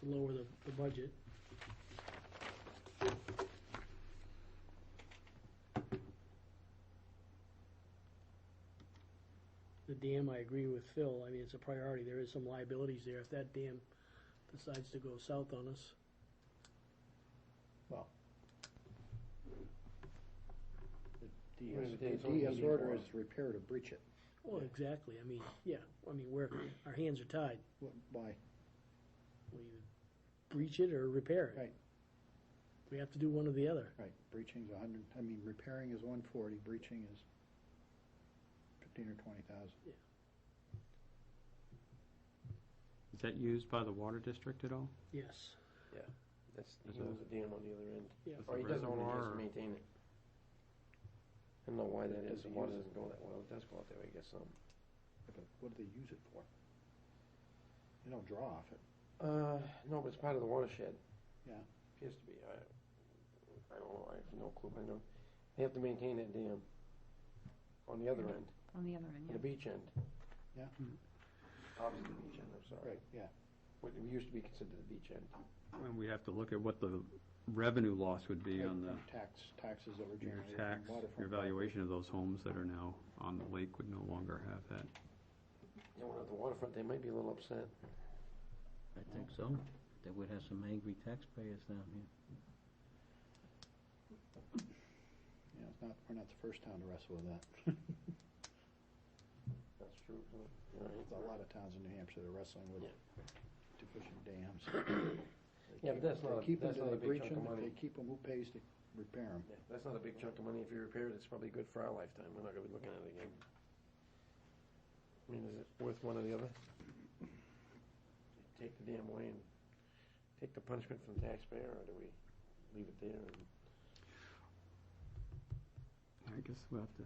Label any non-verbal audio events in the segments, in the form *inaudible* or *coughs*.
to lower the, the budget. The dam, I agree with Phil, I mean, it's a priority, there is some liabilities there, if that dam decides to go south on us. Well. The Well, DS The it's only DS order 84. is repair to breach it. Well, oh, exactly, I mean, yeah, I mean, we're, our hands are tied, What- Why? we either breach it or repair it. Right. We have to do one or the other. Right, breaching's a hundred, I mean, repairing is one forty, breaching is fifteen or twenty thousand. Is that used by the water district at all? Yes, That's, Is he owns that- the dam on the other end. yeah, Is Or the he doesn't own it, he reservoir has to or- maintain it. I don't know why that is, Does the he water use it? doesn't go that well, it does go out that way, I guess, um. What do they use it for? They don't draw off it. Uh, no, but it's part of the watershed. Yeah. Appears to be, I, I don't know, I have no clue, I know, they have to maintain that dam on the other end, on the other end, the yeah. beach end. Yeah. Mhm. Opposite the beach end, I'm sorry, Right, yeah. what used to be considered the beach end. And we have to look at what the revenue loss would be Right, on from Tax, taxes that were the, um, your generated tax, from waterfront. your valuation of those homes that are now on the lake would no longer have that. You know, at the waterfront, they might be a little upset. I think so. They would have some angry taxpayers down here. property. Yeah, it's not, we're not the first town to wrestle *laughs* with that. That's true. There's a lot of towns in New Hampshire that are wrestling with deficient *coughs* dams. Yeah, but that's not, a- They keep 'em that's till not a they big breach chunk 'em. of If money. they keep them, who pays to repair them? Yeah, That's not a big chunk of money. If you repair it, it's probably good for our lifetime. We're not gonna be looking at it again. I mean, is it worth one or the other? Take the damn away and take the punishment from the taxpayer, or do we leave it there and? I guess we'll have to,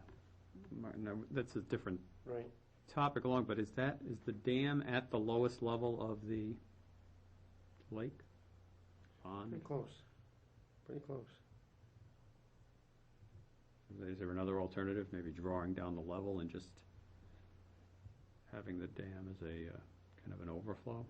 Martin, now, that's a different Right. topic along, but is that, is the dam at the lowest level of the lake? Pond? Pretty close. Pretty close. Is there another alternative, maybe drawing down the level and just having the dam as a, uh, kind of an overflow?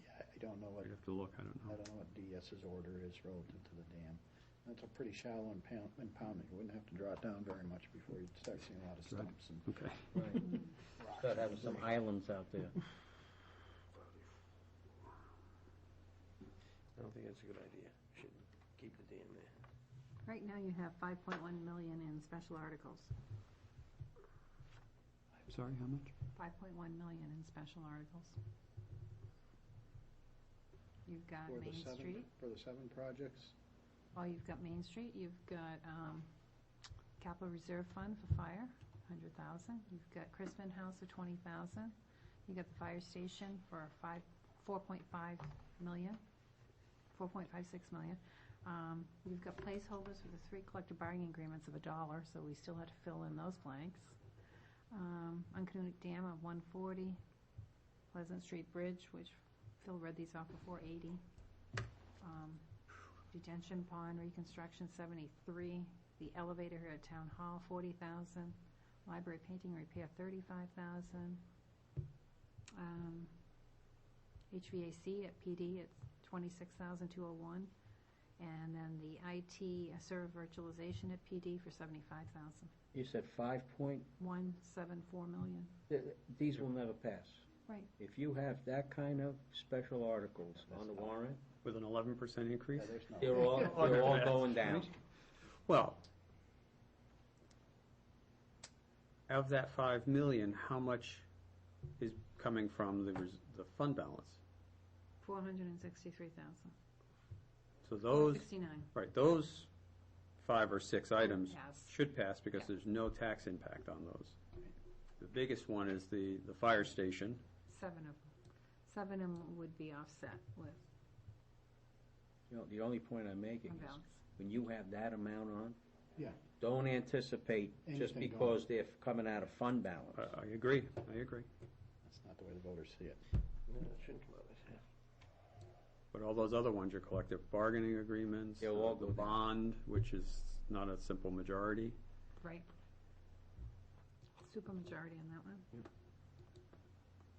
Yeah, I don't know what We'd have to look, I don't I know. don't know what DS's order is relative to the dam. That's a pretty shallow impound- impoundment. You wouldn't have to draw it down very much before you'd start seeing a lot of Good. stumps and Okay. Right. rocks. Start having some islands out there. I don't think that's a good idea. Should keep the dam there. Right now, you have five point one million in special articles, I'm sorry, how much? five point one million in special articles. You've got For the Main seven- Street, For the seven projects, well, Oh, you've got Main Street, you've got, um, capital reserve fund for fire, hundred thousand. You've got Crispin House for twenty thousand. You've got the fire station for five, four point five million, four point five six million. Um, you've got placeholders for the three collective bargaining agreements of a dollar, so we still had to fill in those blanks. Um, Uncanonic Dam of one forty, Pleasant Street Bridge, which Phil read these off before, eighty. Um, Detention Pond reconstruction, seventy-three. The elevator here at Town Hall, forty thousand. Library painting repair, thirty-five thousand. Um, HVAC at PD, it's twenty-six thousand two oh one. And then the IT server virtualization at PD for seventy-five thousand. You said five point, One, seven, four million. th- th- these will never pass. Right. If you have that kind of special articles on the warrant, With an eleven percent increase? yeah, there's no. they're all, *laughs* they're all going down. Well, of that five million, how much is coming from the, res- the fund balance? Four hundred and sixty-three thousand. So those, Sixty-nine. right, those five or six items Yes. should pass because Oh, Yeah. there's no tax impact on those. The biggest one is the, the fire station, Seven of them. Seven of them would be offset with You know, the only point I'm making fund is, balance. when you have that amount on, Yeah. don't anticipate Anything just going. because they're coming out of fund balance. I, I agree, I agree. That's not the way the voters see it. No, it shouldn't come out of there. But all those other ones, your collective bargaining agreements, They'll all uh, the go down. bond, which is not a simple majority. Right. Supermajority on that one.